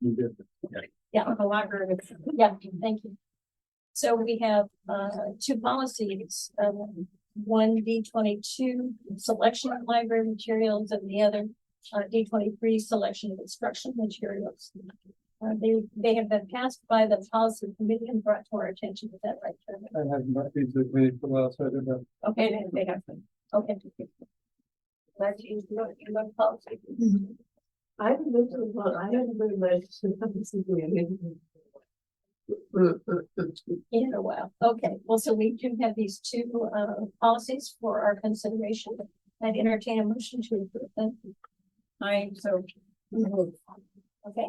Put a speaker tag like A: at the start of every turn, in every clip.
A: New business.
B: Yeah, the library, yeah, thank you. So we have uh two policies, um one D twenty-two, selection of library materials and the other. Uh D twenty-three, selection of instructional materials. Uh, they they have been passed by the policy committee and brought to our attention with that right term.
A: I have not been to the clinic for the last, I don't know.
B: Okay, then they have, them. okay. Glad you know, you love policy.
C: I haven't lived in, well, I haven't been in.
B: In a while, okay, well, so we do have these two uh policies for our consideration, I'd entertain a motion to approve them. I, so. mm, Okay.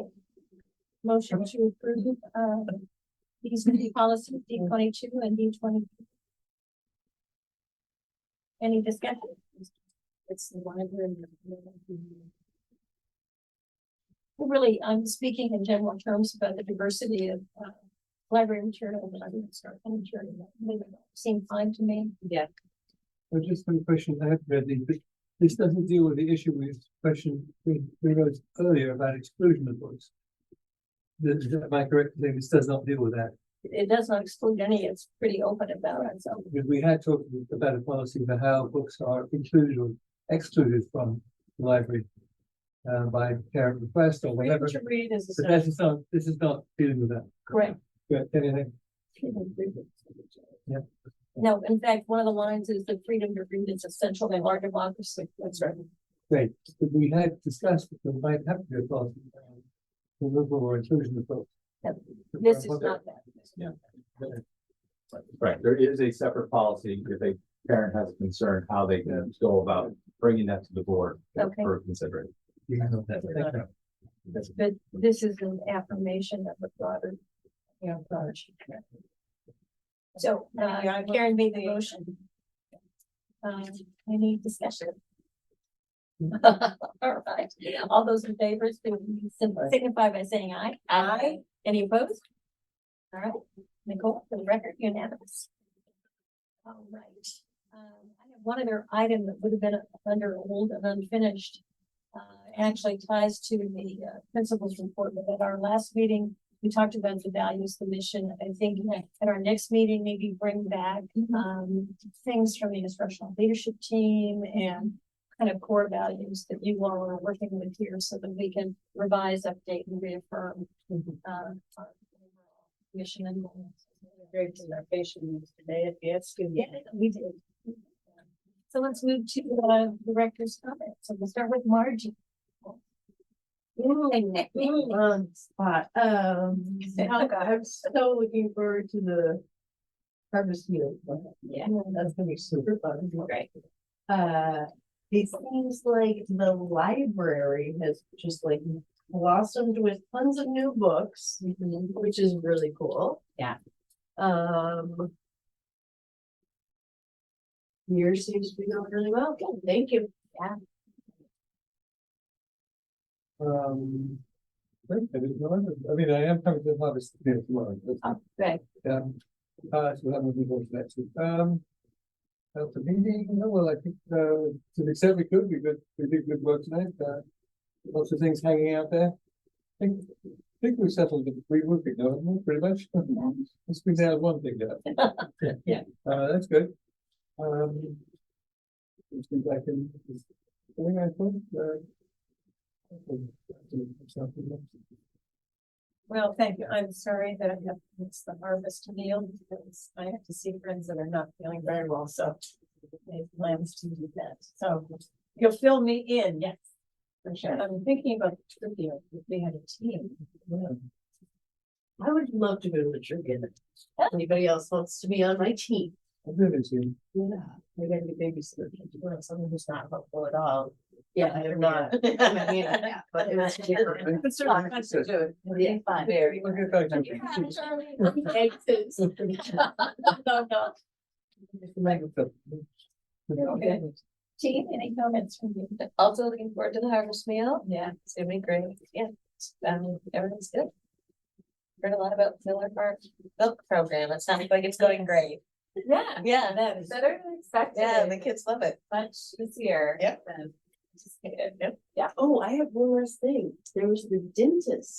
B: Motion to approve uh these new policies, D twenty-two and D twenty. Any discussion? It's the library. Really, I'm speaking in general terms about the diversity of uh library material, but I didn't start any material. They seem fine to me.
C: Yeah.
A: I just have a question I have read these, but this doesn't deal with the issue with question we we raised earlier about exclusion of books. This, am I correct, in saying this does not deal with that,
B: It does not exclude any. It's pretty open about it. So
A: because we had talked about a policy for how books are included or excluded from the library. Uh, by parent request or whatever,
C: read is.
A: but this is not, this is not dealing with that.
B: Correct.
A: Correct, anything, Yeah.
B: No, in fact, one of the lines is the freedom to read is essential in our democracy. That's right.
A: great, but we had discussed, that we might have to do a policy. uh, around Removal or inclusion of books.
B: This is not that.
D: Right, there is a separate policy if a parent has a concern, how they can go about bringing that to the board
B: Okay.
D: for consideration.
A: Yeah, I know that, thank you.
B: This, but this is an affirmation of the broader. You know, broader. So, uh, Karen made the motion. Um, any discussion? All right, all those in favor, please signify by saying aye. Aye. Any opposed? All right, Nicole, for the record, unanimous. All right, um, I have one other item that would have been under old and unfinished uh, actually ties to the uh, principals report, but at our last meeting, we talked about the values, the mission. I think that at our next meeting, maybe bring back, um, things from the instructional leadership team and kind of core values that you all are working with here so that we can revise, update and reaffirm, uh, our mission and goals.
C: Great presentation today at the S U.
B: Yeah, we did. So let's move to uh, the director's comments. So we'll start with Margie.
C: Um, spot, um,
B: Oh,
C: I'm so looking forward to the harvest meal.
B: Yeah.
C: That's gonna be super fun.
B: Great.
C: Uh, it seems like the library has just like blossomed with tons of new books, which is really cool.
B: Mm-hmm. Yeah.
C: Um. Yours seems to be going really well. Good, thank you.
A: Um. I think there is no other- I mean, I am coming to the harvest here tomorrow. but,
B: Good.
A: Um, uh, so that will be going to that too. Um. That's the meeting, no, well, I think, uh, to the extent we could, we could, we did good work tonight, uh, lots of things hanging out there. I think, I think we settled it, we would be going, pretty much. Let's be down one thing there.
C: Yeah.
A: Uh, that's good. Um. Let's be back in. I think I put, uh,
B: Well, thank you. I'm sorry that I have missed the harvest meal because I have to see friends that are not feeling very well, so I have plans to do that. So you'll fill me in, yes. For sure. I'm thinking about the trivia. if We had a team.
C: I would love to go to the trivia. If Anybody else wants to be on my team? Yeah, we're gonna be babysitters. Well, someone who's not helpful at all. Yeah, I'm not. I mean, yeah, But it was.
A: It's certainly fun to do
C: Yeah, fun. Very. Exits.
B: No, no.
C: Okay.
B: Team, any comments from you? Also looking forward to the harvest meal.
C: Yeah, it's gonna be great.
B: Yeah, um, everything's good. Heard a lot about Miller Park Milk Program. It sounds like it's going great.
E: Yeah,
B: Yeah, that is.
E: better than expected.
B: Yeah, the kids love it.
E: Much this year.
B: Yep.
E: Anticipated.
C: Yeah, oh, I have one last thing. There was the dentist